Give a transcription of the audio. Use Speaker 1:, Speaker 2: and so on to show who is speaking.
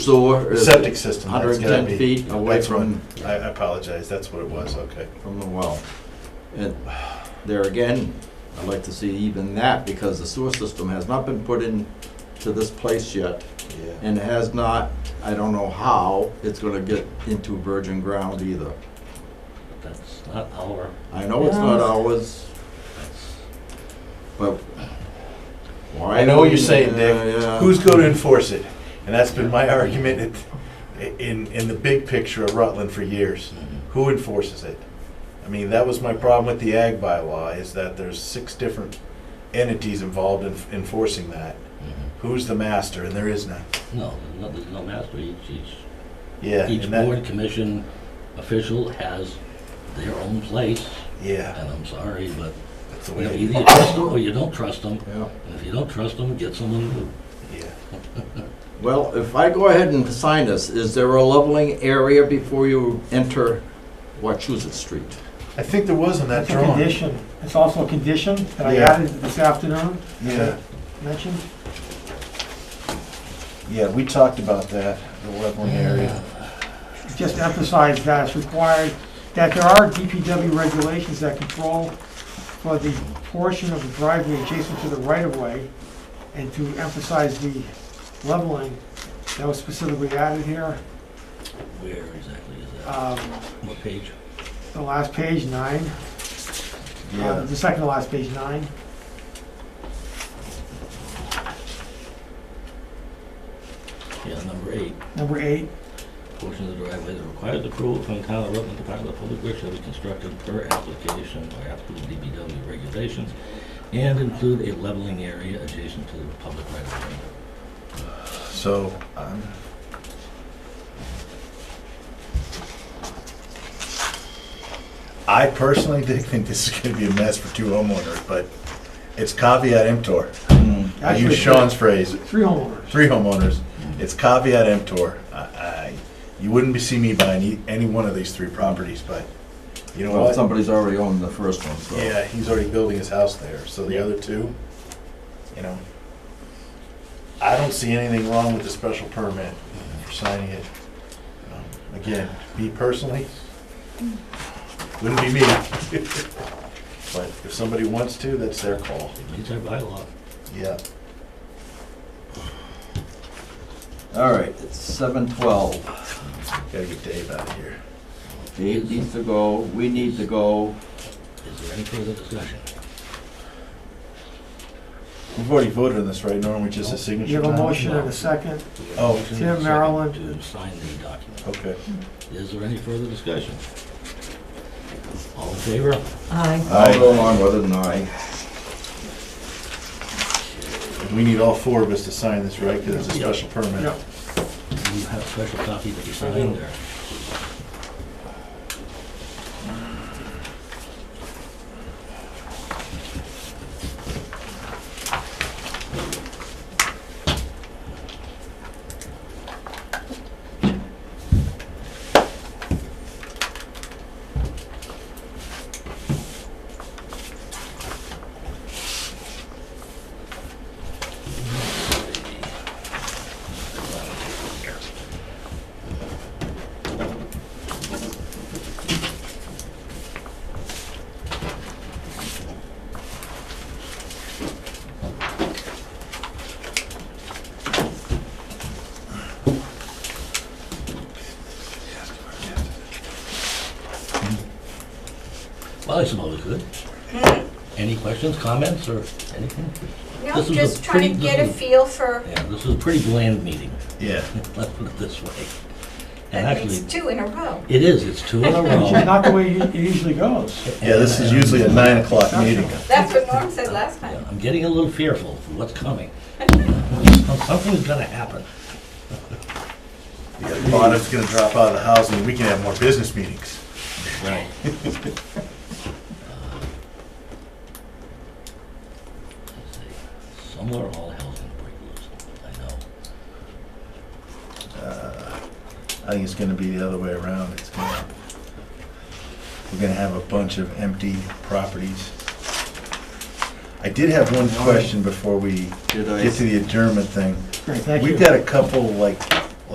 Speaker 1: sewer. is
Speaker 2: Septic system, that's gotta
Speaker 1: 110
Speaker 2: be.
Speaker 1: feet away
Speaker 2: that's what-
Speaker 1: from,
Speaker 2: I I apologize, that's what it was, okay.
Speaker 1: from the well. And there again, I'd like to see even that, because the sewer system has not been put in to this place yet,
Speaker 2: Yeah.
Speaker 1: and has not, I don't know how, it's gonna get into virgin ground either.
Speaker 3: That's not our,
Speaker 1: I know it's not
Speaker 4: Yeah.
Speaker 1: ours, but why?
Speaker 2: I know what you're
Speaker 1: we-
Speaker 2: saying,
Speaker 1: yeah,
Speaker 2: Dick.
Speaker 1: yeah.
Speaker 2: Who's going to enforce it? And that's been my argument in, in, in the big picture of Rutland for years. Who enforces it? I mean, that was my problem with the ag bylaw, is that there's six different entities involved in enforcing that. Who's the master? And there is none.
Speaker 3: no, no, there's no master, each, each,
Speaker 2: Yeah.
Speaker 3: each
Speaker 2: and that-
Speaker 3: board commission official has their own place,
Speaker 2: Yeah,
Speaker 3: and I'm sorry, but
Speaker 2: that's the
Speaker 3: you
Speaker 2: way
Speaker 3: know,
Speaker 2: it
Speaker 3: either you trust them or you don't trust them,
Speaker 1: Yeah.
Speaker 3: and if you don't trust them, get someone who
Speaker 2: Yeah.
Speaker 1: Well, if I go ahead and sign this, is there a leveling area before you enter Wachusett Street?
Speaker 2: I think there was on that
Speaker 4: That's a
Speaker 2: drawing.
Speaker 4: condition. It's also a condition that I
Speaker 2: Yeah.
Speaker 4: added this afternoon,
Speaker 2: Yeah,
Speaker 4: mentioned.
Speaker 2: yeah, we talked about that, the leveling area.
Speaker 4: Just emphasize that it's required, that there are DPW regulations that control for the portion of the driveway adjacent to the right-of-way, and to emphasize the leveling that was specifically added here.
Speaker 3: Where exactly is
Speaker 2: Uh,
Speaker 3: that?
Speaker 4: Um,
Speaker 3: What page?
Speaker 4: The last page, nine, uh,
Speaker 2: Yeah,
Speaker 4: the second to last page, nine.
Speaker 3: Yeah, number eight.
Speaker 4: Number eight,
Speaker 3: Portion of the driveway that requires approval from town of Rutland Department of Public Works shall be constructed per application or applicable DBW regulations and include a leveling area adjacent to the public right of way.
Speaker 2: so, um, I personally did think this is gonna be a mess for two homeowners, but it's caveat emptor.
Speaker 1: Mm,
Speaker 2: I
Speaker 4: Actually,
Speaker 2: use Sean's phrase,
Speaker 4: three homeowners.
Speaker 2: three homeowners, it's caveat emptor. I, I, you wouldn't be seeing me buying e- any one of these three properties, but you know
Speaker 1: Well,
Speaker 2: what?
Speaker 1: somebody's already owned the first one, so.
Speaker 2: Yeah, he's already building his house there, so the other two, you know. I don't see anything wrong with the special permit for signing it. Um, Again, me personally, wouldn't be me. But if somebody wants to, that's their call,
Speaker 3: It meets our bylaw.
Speaker 2: yeah.
Speaker 1: All right, it's seven twelve.
Speaker 2: Gotta get Dave out of here.
Speaker 1: Dave needs to go, we need to go.
Speaker 3: Is there any further discussion?
Speaker 2: We've already voted on this, right, Norm, which is a signature
Speaker 4: Oh, You have a
Speaker 2: time?
Speaker 4: motion and a second.
Speaker 2: Oh.
Speaker 3: Motion
Speaker 4: Tim,
Speaker 3: second
Speaker 4: Marilyn.
Speaker 3: To sign the document.
Speaker 2: Okay.
Speaker 3: Is there any further discussion? All in favor?
Speaker 5: Aye.
Speaker 1: I'll go along with it and I.
Speaker 2: We need all four of us to sign this, right, because it's a
Speaker 3: Yeah.
Speaker 2: special permit.
Speaker 4: Yeah.
Speaker 3: You have a special copy that you signed there. Well, I suppose we could. Any questions, comments, or anything?
Speaker 5: No,
Speaker 3: This was a
Speaker 5: just trying
Speaker 3: pretty-
Speaker 5: to get a
Speaker 3: this was-
Speaker 5: feel for,
Speaker 3: Yeah, this was a pretty bland meeting,
Speaker 2: Yeah.
Speaker 3: let's put it this way. And
Speaker 5: that makes
Speaker 3: actually,
Speaker 5: two in a row.
Speaker 3: it is, it's two in a
Speaker 4: Which is
Speaker 3: row.
Speaker 4: not the way it usually goes.
Speaker 2: Yeah, this is usually a nine o'clock meeting.
Speaker 5: That's what Norm said last
Speaker 3: Yeah,
Speaker 5: time.
Speaker 3: I'm getting a little fearful for what's coming. Something's gonna happen.
Speaker 2: Yeah, Bottom's gonna drop out of the house, and we can have more business meetings.
Speaker 3: Right. Somewhere all hell's gonna break loose, I know.
Speaker 2: I think it's gonna be the other way around, it's gonna, we're gonna have a bunch of empty properties. I did have one question before we
Speaker 1: Did
Speaker 2: get to
Speaker 1: I?
Speaker 2: the adjournment thing.
Speaker 4: Great, thank you.
Speaker 2: We've got a couple, like,